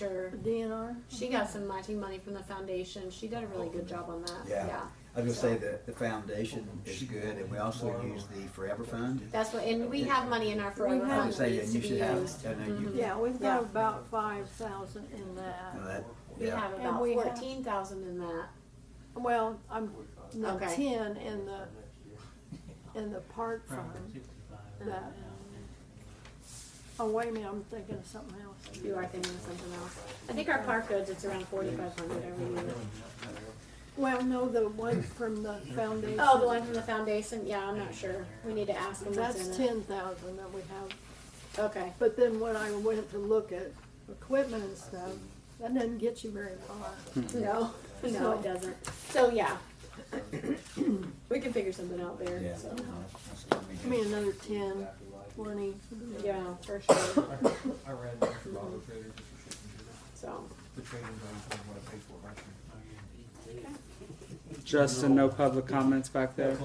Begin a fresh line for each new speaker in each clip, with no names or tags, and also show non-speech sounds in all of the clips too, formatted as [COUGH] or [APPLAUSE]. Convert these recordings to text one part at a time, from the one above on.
sure.
DNR?
She got some matching money from the foundation. She did a really good job on that.
Yeah.
Yeah.
I was gonna say that the foundation is good, and we also use the Forever Fund.
That's what, and we have money in our forever
We
I
have-
fund
was
that
saying
needs
that
to
you
be
should have,
used. Mm-hmm.
I know you, you
Mhm. Yeah, we've
Yeah.
got about five thousand in
know,
that.
that,
We
yeah.
have
And
about
we have-
fourteen thousand in that.
Well, I'm, no,
Okay.
ten in the, in the park fund. that- Oh, wait a minute, I'm thinking of something else.
You are thinking of something else. I think our park roads, it's around forty-five hundred every year.
Well, no, the one from the foundation.
Oh, the one from the foundation? Yeah, I'm not sure. We need to ask them what's in it.
That's ten thousand that we have.
Okay.
But then when I went to look at equipment and stuff, that doesn't get you very far.
[LAUGHS] No, no, it doesn't. So, yeah. [COUGHS] We can figure something out
Yeah. Uh-huh.
there, so,
no, that's gonna be
I mean,
good.
another ten, twenty.
yeah, for sure,
I ran that for Bob the trader, but you shouldn't do that.
[COUGHS] so.
The trader knows what I paid for, I can.
Justin, no public comments back there.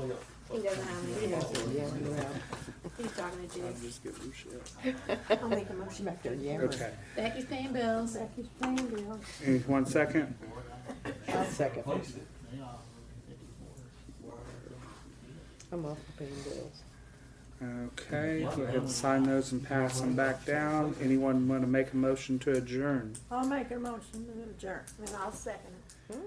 He doesn't have any. He's talking to Jude.
just giving him shit.
I'll make a motion back there, yeah.
Okay,
Becky's paying bills.
Becky's paying bills.
Hey, one second.
I'll second. I'm off the paying bills.
Okay, go ahead and sign those and pass them back down. Anyone want to make a motion to adjourn?
I'll make a motion to adjourn.
And I'll second.
Hmm.